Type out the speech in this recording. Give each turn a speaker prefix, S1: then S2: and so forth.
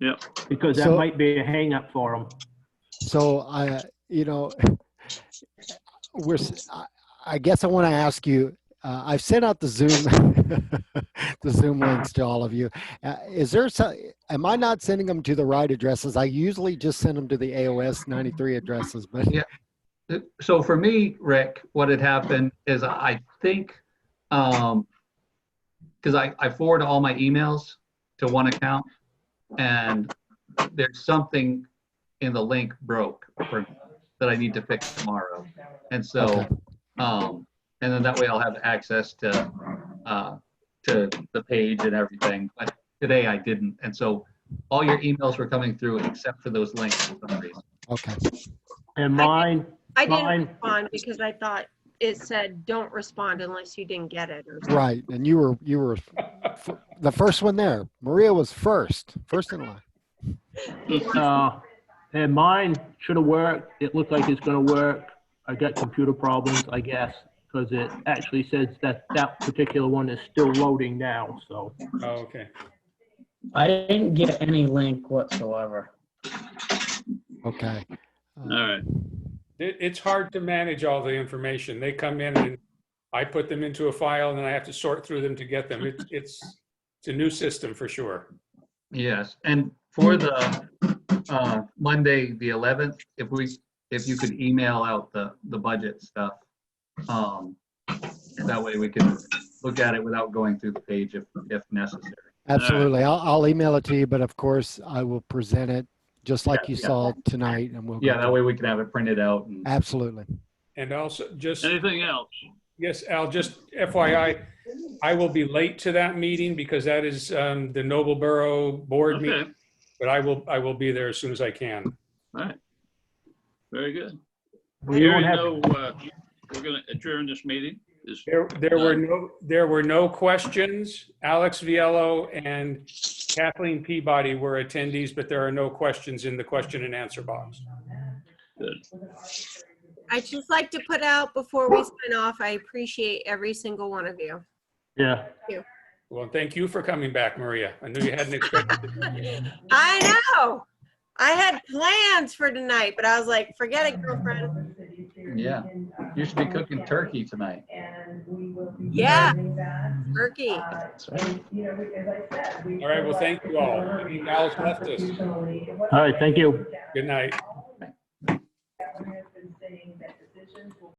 S1: Yep.
S2: Because that
S3: So-
S2: might be a hang up for them.
S3: So I, you know, we're, s- I- I guess I want to ask you, uh, I've sent out the Zoom, the Zoom links to all of you. Uh, Is there, so- am I not sending them to the right addresses? I usually just send them to the AOS 93 addresses, but
S4: Yeah. So for me, Rick, what had happened is I think, um, because I, I forward all my emails to one account and there's something in the link broke for, that I need to fix tomorrow. And so,
S3: Okay.
S4: um, and then that way I'll have access to, uh, to the page and everything. But today I didn't. And so all your emails were coming through except for those links for some reason.
S3: okay.
S2: And mine,
S5: I didn't
S2: Fine.
S5: respond because I thought it said, don't respond unless you didn't get it or something.
S3: Right. And you were, you were f- the first one there. Maria was first, first in line.
S2: uh, and mine should have worked. It looked like it's gonna work. I got computer problems, I guess, because it actually says that that particular one is still loading now, so.
S6: Oh, okay.
S7: I didn't get any link whatsoever.
S3: Okay. Uh,
S1: All right.
S6: It, it's hard to manage all the information. They come in and I put them into a file and then I have to sort through them to get them. It's, it's, it's a new system for sure.
S4: Yes, and for the uh, Monday, the 11th, if we, if you could email out the, the budget stuff. um, That way we can look at it without going through the page if, if necessary.
S3: Absolutely. I'll, I'll email it to you, but of course I will present it just like you
S4: yeah.
S3: saw tonight and we'll. go
S4: Yeah,
S3: through
S4: that way we can have it printed out and
S3: Absolutely.
S6: And also just,
S1: Anything else?
S6: yes, Al, just FYI, I will be late to that meeting because that is um, the Nobleboro Board
S1: Okay.
S6: meeting. But I will, I will be there as soon as I can.
S1: All right. Very good.
S2: We
S1: Hearing
S2: don't have.
S1: no, uh, we're gonna adjourn this meeting. Is-
S6: There, there were no, there were no questions. Alex Viello and Kathleen Peabody were attendees, but there are no questions in the question and answer box.
S5: I'd just like to put out before we sign off, I appreciate every single one of you.
S2: Yeah.
S6: Well, thank you for coming back, Maria. I knew you hadn't expected. it.
S5: I know. I had plans for tonight, but I was like, forget it, girlfriend.
S4: Yeah. you should be cooking turkey tonight.
S5: Yeah. Turkey.
S6: All right, well, thank you all. I mean, Al's left us.
S2: All right, thank you.
S6: Good night.